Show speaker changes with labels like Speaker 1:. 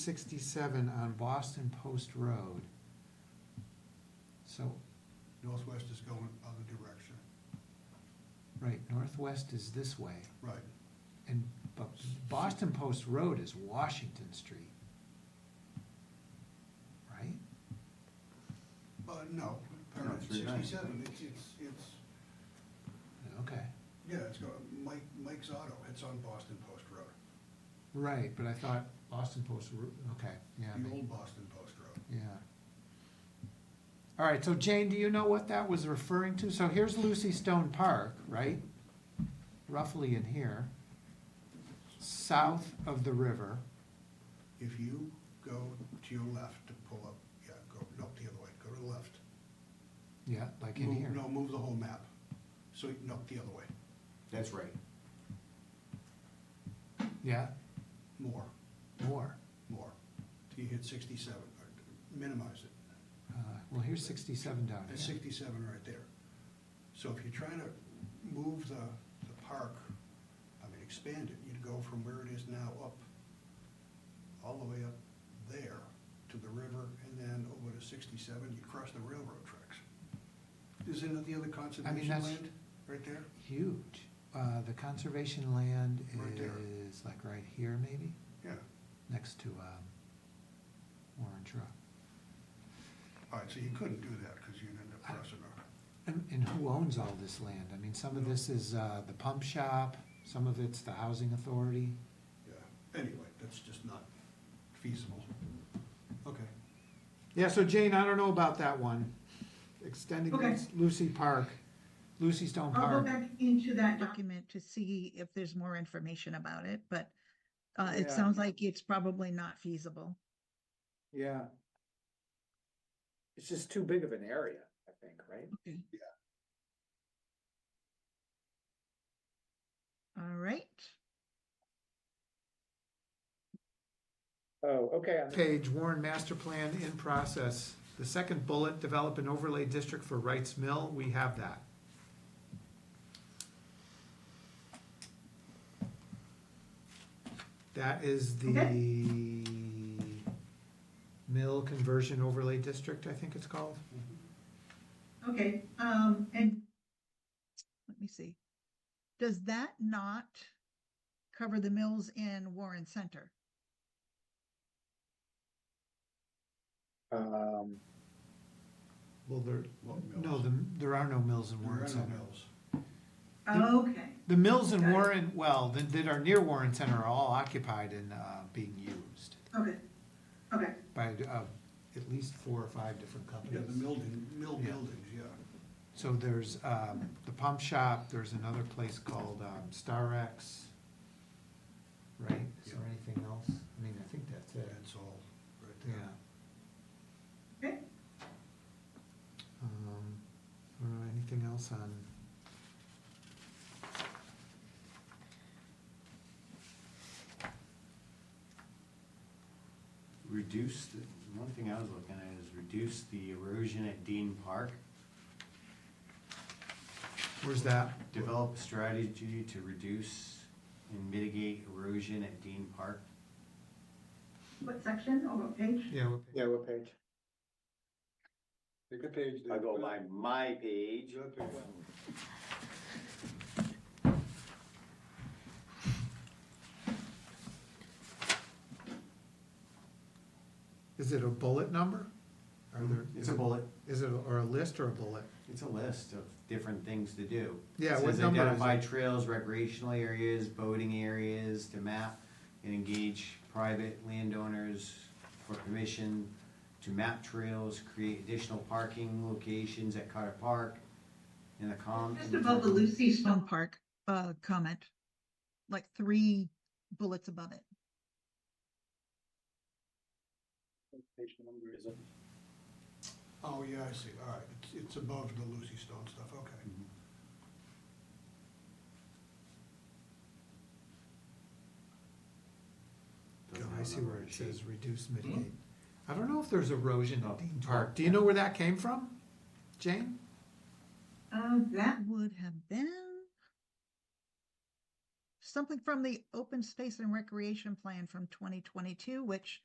Speaker 1: sixty-seven on Boston Post Road. So,
Speaker 2: Northwest is going other direction,
Speaker 1: right, northwest is this way,
Speaker 2: right.
Speaker 1: and, but Boston Post Road is Washington Street. Right?
Speaker 2: But no,
Speaker 3: No,
Speaker 2: current
Speaker 3: three ninety.
Speaker 2: sixty-seven, it's, it's, it's,
Speaker 1: Okay,
Speaker 2: yeah, it's going, Mike, Mike's Auto, it's on Boston Post Road.
Speaker 1: right, but I thought Boston Post Road, okay, yeah,
Speaker 2: The
Speaker 1: ma-
Speaker 2: old Boston Post Road.
Speaker 1: yeah. All right, so Jane, do you know what that was referring to? So here's Lucy Stone Park, right? Roughly in here, south of the river.
Speaker 2: If you go to your left to pull up, yeah, go, no, the other way, go to the left.
Speaker 1: Yeah, like in
Speaker 2: Move-
Speaker 1: here.
Speaker 2: No, move the whole map. So, no, the other way,
Speaker 3: That's right.
Speaker 1: Yeah,
Speaker 2: more,
Speaker 1: more.
Speaker 2: more, till you hit sixty-seven, or minimize it.
Speaker 1: Uh, Well, here's sixty-seven down
Speaker 2: That's
Speaker 1: here.
Speaker 2: sixty-seven right there. So if you're trying to move the, the park, I mean, expand it, you'd go from where it is now up, all the way up there to the river, and then over to sixty-seven, you cross the railroad tracks. Isn't it the other conservation
Speaker 1: that's-
Speaker 2: land, right there?
Speaker 1: Huge. Uh, The conservation land
Speaker 2: Right there.
Speaker 1: is like right here maybe,
Speaker 2: Yeah.
Speaker 1: next to um, Orange Rock.
Speaker 2: All right, so you couldn't do that, because you'd end up crossing over.
Speaker 1: And and who owns all this land? I mean, some of this is uh, the pump shop, some of it's the housing authority.
Speaker 2: Yeah, anyway, that's just not feasible. Okay.
Speaker 1: Yeah, so Jane, I don't know about that one. Extending
Speaker 4: Okay.
Speaker 1: this Lucy Park, Lucy Stone
Speaker 4: I'll go
Speaker 1: Park.
Speaker 4: back into that document.
Speaker 5: document to see if there's more information about it, but uh, it
Speaker 1: Yeah.
Speaker 5: sounds like it's probably not feasible.
Speaker 6: Yeah. It's just too big of an area, I think, right?
Speaker 5: Okay. All right,
Speaker 6: Oh, okay, I'm-
Speaker 1: Page, Warren Master Plan in process. The second bullet, develop an overlay district for Wrights Mill, we have that. That is the mill conversion overlay district, I think it's called.
Speaker 4: Okay, um, and
Speaker 5: let me see. Does that not cover the mills in Warren Center?
Speaker 6: um,
Speaker 1: Well, there,
Speaker 2: What mills?
Speaker 1: no, the, there are no mills in
Speaker 2: There are no
Speaker 1: Warren Center.
Speaker 2: mills.
Speaker 4: okay,
Speaker 1: The mills in
Speaker 4: Okay.
Speaker 1: Warren, well, that, that are near Warren Center are all occupied and, uh, being used.
Speaker 4: okay, okay,
Speaker 1: by uh, at least four or five different
Speaker 2: Yeah,
Speaker 1: companies.
Speaker 2: the building, mill
Speaker 1: Yeah.
Speaker 2: buildings, yeah.
Speaker 1: So there's um, the pump shop, there's another place called um, Starex, right? Is there anything else? I mean, I think that's it,
Speaker 2: That's all right
Speaker 1: yeah.
Speaker 2: there.
Speaker 4: okay.
Speaker 1: Um, I don't know, anything else on?
Speaker 3: Reduce, the one thing I was looking at is reduce the erosion at Dean Park.
Speaker 1: Where's that?
Speaker 3: Develop a strategy to reduce and mitigate erosion at Dean Park.
Speaker 4: What section or what page?
Speaker 1: Yeah. what page?
Speaker 6: yeah, what page?
Speaker 7: Take a page.
Speaker 3: I go by my page.
Speaker 1: Is it a bullet number? Are there?
Speaker 3: Hmm. It's a bullet.
Speaker 1: Is it, or a list or a bullet?
Speaker 3: It's a list of different things to do.
Speaker 1: Yeah,
Speaker 3: It
Speaker 1: what
Speaker 3: says
Speaker 1: number is
Speaker 3: Identify
Speaker 1: it?
Speaker 3: trails, recreational areas, boating areas to map and engage private landowners for permission to map trails, create additional parking locations at Carter Park in the com.
Speaker 4: Just above the Lucy
Speaker 5: Stone
Speaker 4: Stone Park.
Speaker 5: Park uh, comment, like three bullets above it.
Speaker 2: Oh, yeah, I see, all right, it's, it's above the Lucy Stone stuff, okay.
Speaker 3: Mhm.
Speaker 1: Yeah,
Speaker 3: Doesn't
Speaker 1: I
Speaker 3: have
Speaker 1: see
Speaker 3: number
Speaker 1: where
Speaker 3: on
Speaker 1: it
Speaker 3: the
Speaker 1: says
Speaker 3: sheet.
Speaker 1: reduce mitigate. I don't know if there's erosion
Speaker 3: Oh,
Speaker 1: at Dean
Speaker 3: oh,
Speaker 1: Park. Do you know where that came from, Jane?
Speaker 4: Uh, that,
Speaker 5: That would have been something from the open space and recreation plan from twenty twenty-two, which